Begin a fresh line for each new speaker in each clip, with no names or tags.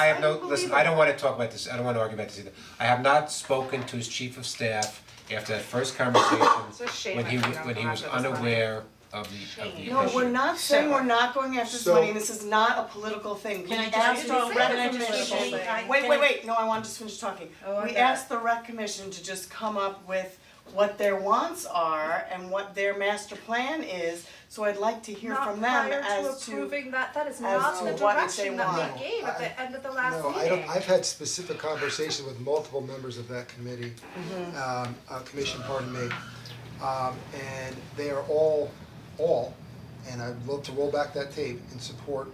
I have no,
don't
listen,
believe
I don't wanna talk about this, I don't wanna argue about this either. I have not spoken to his chief of staff after that first
It's a shame
conversation, when
I
he was,
forgot
when he
about
was
that, that's funny.
unaware of the, of the issue.
No, we're not saying we're not going after this
So-
money, this is not a political thing, we
Can I just-
asked the
can I
rec commission.
just- can I-
Wait,
can
wait,
I-
wait, no, I want to just finish talking.
Oh, I
We
got
asked the rec commission to just come up with what their wants are and what their master plan is, so I'd like to hear from them as
Not prior to
to,
approving that, that is
as
not the
to what they
direction that
want.
they gave at the end of the last meeting.
No, I don't, I've had specific conversation with multiple members of that committee,
Mm-hmm.
um, uh, commission, pardon me. Um, and they are all, all, and I'd love to roll back that tape in support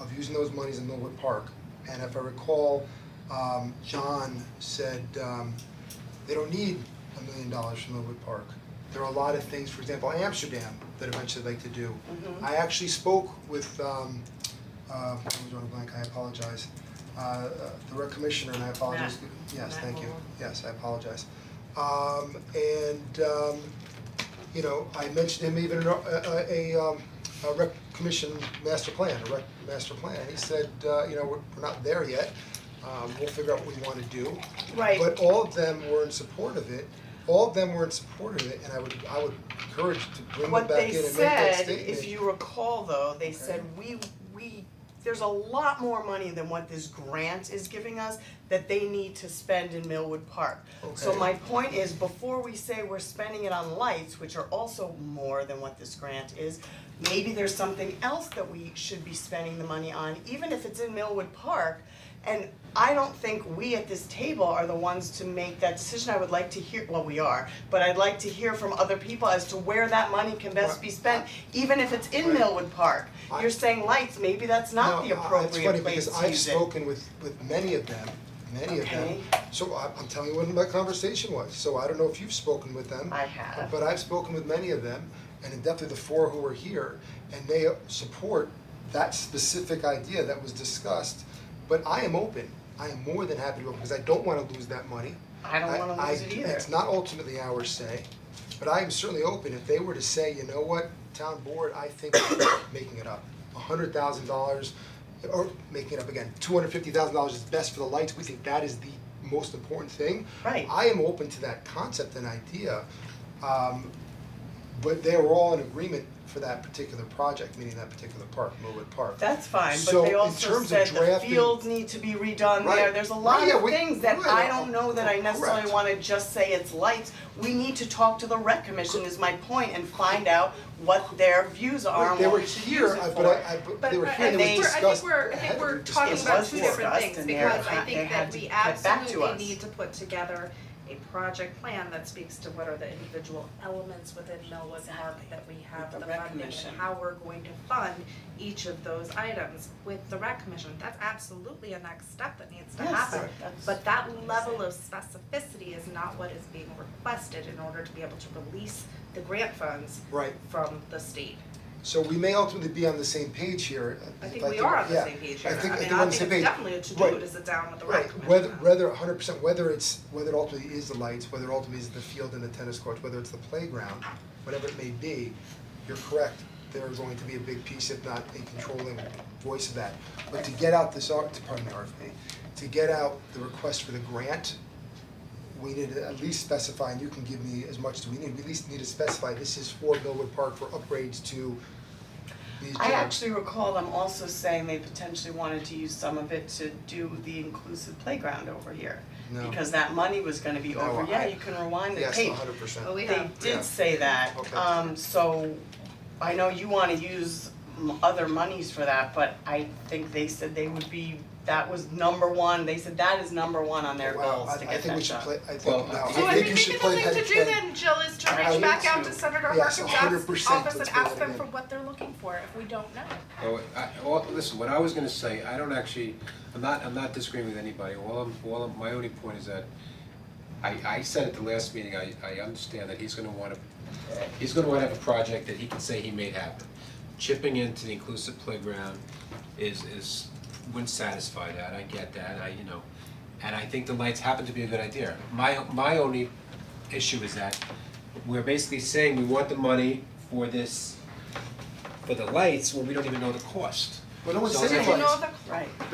of using those monies in Millwood Park. And if I recall, um, John said, um, they don't need a million dollars from Millwood Park. There are a lot of things, for example, Amsterdam, that eventually they'd like to do.
Mm-hmm.
I actually spoke with, um, uh, I'm drawing a blank, I apologize. Uh, uh, the rec commissioner, and I apologize, yes,
Matt
thank you,
Lowell.
yes, I apologize. Um, and, um, you know, I mentioned him even in a, a, a, um, a rec commission master plan, a rec master plan. He said, uh, you know, we're, we're not there yet, um, we'll figure out what we wanna do.
right,
But all of them were in support of it, all of them were in support of it, and I would, I would encourage to bring them
what
back
they
in and make that
said,
statement.
if you recall though, they said, we, we, there's a lot more money than what this grant is giving us that they need to spend in Millwood Park. So
Okay.
my point is, before we say we're spending it on lights, which are also more than what this grant is, maybe there's something else that we should be spending the money on, even if it's in Millwood Park. And I don't think we at this table are the ones to make that decision, I would like to hear, well, we are, but I'd like to hear from other people as to where that money can best be spent, even if it's in
Right.
Millwood Park.
I-
You're saying lights, maybe that's not the
No, I- uh, it's funny
appropriate place
because
to
I've
use it.
spoken with with many of them, many of them.
Okay.
So I I'm telling you what my conversation was, so I don't know if you've spoken with them.
I have.
But I've spoken with many of them and in depth of the four who are here and they support that specific idea that was discussed. But I am open, I am more than happy to open because I don't wanna lose that money.
I don't wanna lose it
I-
either.
it's not ultimately our say, but I am certainly open if they were to say, you know what, town board, I think making it up, a hundred thousand dollars, or making it up again, two hundred fifty thousand dollars is best for the lights, we think that is the most important thing.
Right.
I am open to that concept and idea, um, but they were all in agreement for that particular project, meaning that particular park, Millwood Park.
That's fine, but
So,
they
in
also
terms of
said the
drafting-
fields need to be redone there,
Right.
there's a
Right,
lot
yeah,
of
we-
things that
right,
I
uh,
don't know that I necessarily
correct.
wanna just say it's lights. We need to talk to the rec commission is my point and find out what their views are and
They
what
were
we should use
here,
it
I-
for.
but I, I, but they were here,
and
and it
they-
was
I think
discussed,
we're, I
ahead
think
of
we're
it,
talking
discussed.
about
was
two different
discussed
things,
and they're
because I
not- they
think
had
that
to
we
get back to
absolutely
us.
need to put together a project plan that speaks to what are the individual elements within Millwood Park that we have
With the
the
rec
funding
commission.
and how we're going to fund each of those items with the rec commission, that's absolutely a next step that needs to
Yes,
happen.
that's-
But that level of specificity is not what is being requested in order to be able to release the grant funds
Right.
from the state.
So we may ultimately be on the same page here.
I
if
think we are on the
yeah.
same page here.
I think, I think
mean,
we're
I
on the
think
same
it's
page.
definitely a to-do to sit down with the rec
Right,
commission.
whether, whether hundred percent, whether it's, whether it ultimately is the lights, whether it ultimately is the field and the tennis courts, whether it's the playground, whatever it may be, you're correct, there is going to be a big piece, if not a controlling voice of that. But to get out this, R- pardon me, RFP, to get out the request for the grant, we need to at least specify, and you can give me as much as we need, we at least need to specify, this is for Millwood Park for upgrades to these
I
gyms.
actually recall them also saying they potentially wanted to use some of it to do the inclusive playground over here.
No.
Because that money was gonna be
No,
over,
I-
yeah, you can rewind the tape.
Yes, a hundred percent.
But we
They
have,
Yeah.
did say that,
Okay.
um, so I know you wanna use m- other monies for that, but I think they said they would be, that was number one, they said that is number one on their
Wow,
goals
I,
to
I
get
think
that
we should
done.
play, I
Well,
think, no,
I
I
think
think you should play head
So I think maybe the thing to do then, Jill, is to
I
reach back
need
out
to.
to Senator
Yes,
Harkins'
100%
office and
let's do
ask
that
them
again.
for what they're looking for if we don't know.
Oh, I, all, listen, what I was gonna say, I don't actually, I'm not, I'm not disagreeing with anybody, all I'm, all I'm, my only point is that I, I said at the last meeting, I, I understand that he's gonna wanna, he's gonna wanna have a project that he can say he made happen. Chipping into the inclusive playground is, is, wouldn't satisfy that, I get that, I, you know, and I think the lights happen to be a good idea. My, my only issue is that we're basically saying we want the money for this for the lights when we don't even know the cost.
But no one
So
said
it's like-
it was.
Do you know the
Right.